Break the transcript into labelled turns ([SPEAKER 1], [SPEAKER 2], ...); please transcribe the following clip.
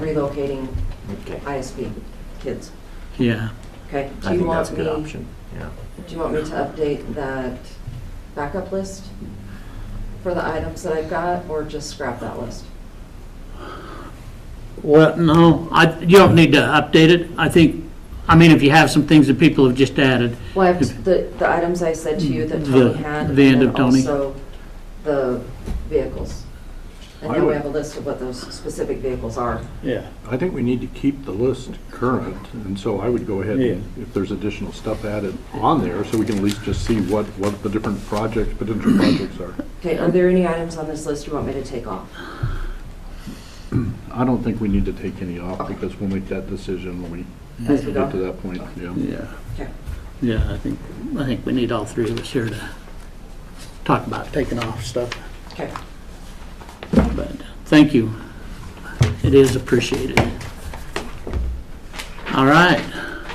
[SPEAKER 1] relocating
[SPEAKER 2] Okay.
[SPEAKER 1] ISB kids,
[SPEAKER 3] Yeah,
[SPEAKER 1] okay? Do
[SPEAKER 2] I
[SPEAKER 1] you
[SPEAKER 2] think that's
[SPEAKER 1] want
[SPEAKER 2] a
[SPEAKER 1] me?
[SPEAKER 2] good option, yeah.
[SPEAKER 1] Do you want me to update that backup list for the items that I've got, or just scrap that list?
[SPEAKER 3] well, no, I, you don't need to update it. I think, I mean, if you have some things that people have just added,
[SPEAKER 1] Well, I have the, the items I said to you that
[SPEAKER 3] The-
[SPEAKER 1] Tony had, and
[SPEAKER 3] the end
[SPEAKER 1] then
[SPEAKER 3] of Tony.
[SPEAKER 1] also the vehicles. And
[SPEAKER 4] I
[SPEAKER 1] now we
[SPEAKER 4] would-
[SPEAKER 1] have a list of what those specific vehicles are.
[SPEAKER 5] Yeah,
[SPEAKER 4] I think we need to keep the list current, and so I would go ahead, and if there's additional stuff added on there, so we can at least just see what, what the different projects, potential projects are.
[SPEAKER 1] Okay, are there any items on this list you want me to take off?
[SPEAKER 4] I don't think we need to take any off, because we'll make that decision when we
[SPEAKER 1] As we
[SPEAKER 4] get to
[SPEAKER 1] go?
[SPEAKER 4] that point, yeah.
[SPEAKER 3] yeah,
[SPEAKER 1] Okay.
[SPEAKER 3] yeah, I think, I think we need all three of us here to talk about taking off stuff,
[SPEAKER 1] Okay.
[SPEAKER 3] but thank you. It is appreciated. All right,